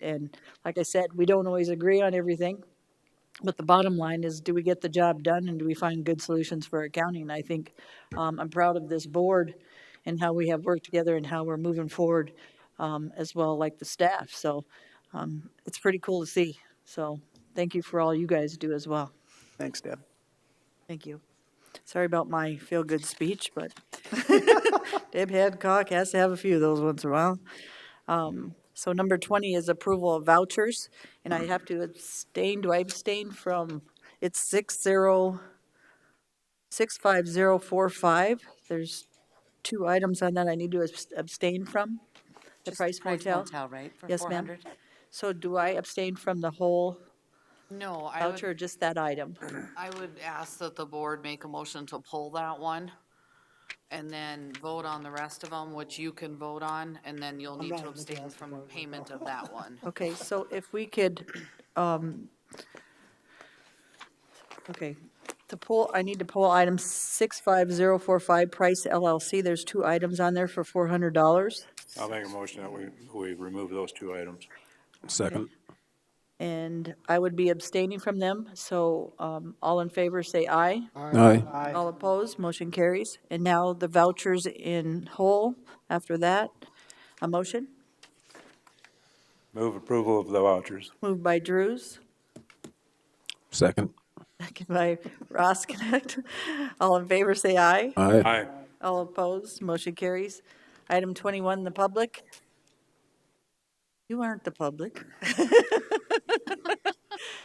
And like I said, we don't always agree on everything. But the bottom line is, do we get the job done and do we find good solutions for our county? And I think, um, I'm proud of this board and how we have worked together and how we're moving forward, um, as well, like the staff. So, um, it's pretty cool to see. So thank you for all you guys do as well. Thanks, Deb. Thank you. Sorry about my feel-good speech, but Deb Hadcock has to have a few of those once in a while. Um, So number 20 is approval of vouchers, and I have to abstain, do I abstain from, it's 60, 65045. There's two items on that I need to abs- abstain from, the Just Price Motel. right? for Yes, ma'am. 400? So do I abstain from the whole No, I voucher or would, just that item? I would ask that the board make a motion to pull that one and then vote on the rest of them, which you can vote on, and then you'll need to abstain from payment of that one. Okay, so if we could, um, okay, to pull, I need to pull item 65045, Price LLC. There's two items on there for $400. I'll make a motion that we, we remove those two items. Second. And I would be abstaining from them, so um, all in favor, say aye. Aye. All opposed, motion carries. And now the vouchers in whole, after that, a motion? Move approval of the vouchers. Moved by Drews, Second. second by Ross Connect. All in favor, say aye. Aye. Aye. All opposed, motion carries. Item 21, the public. You aren't the public.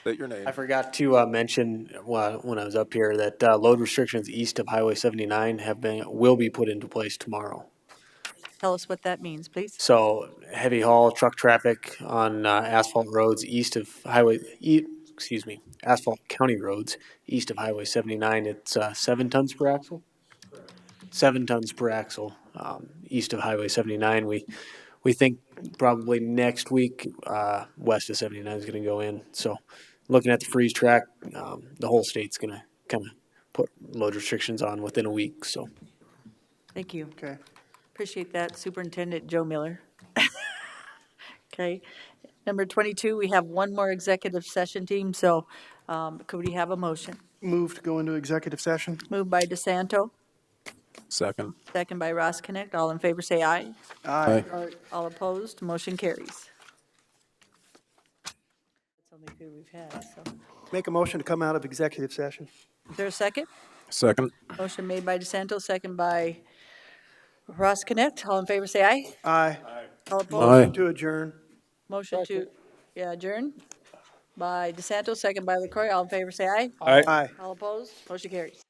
State your name. I forgot to uh, mention wh- when I was up here that uh, load restrictions east of Highway 79 have been, will be put into place tomorrow. Tell us what that means, please. So heavy haul truck traffic on uh, asphalt roads east of Highway, e- excuse me, asphalt county roads east of Highway 79, it's uh, seven tons per axle? Seven tons per axle um, east of Highway 79. We, we think probably next week uh, west of 79 is going to go in. So looking at the freeze track, um, the whole state's going to kind of put load restrictions on within a week, so. Thank you. Okay. Appreciate that, Superintendent Joe Miller. Okay. Number 22, we have one more executive session team, so um, could we have a motion? Move to go into executive session? Moved by DeSanto, Second. second by Ross Connect. All in favor, say aye. Aye. All opposed, motion carries. That's only two we've had, so. Make a motion to come out of executive session? Is there a second? Second. Motion made by DeSanto, second by Ross Connect. All in favor, say aye. Aye. All opposed? Aye. To adjourn? Motion to yeah, adjourn by DeSanto, second by LaCroy. All in favor, say aye. Aye. Aye. All opposed? Motion carries.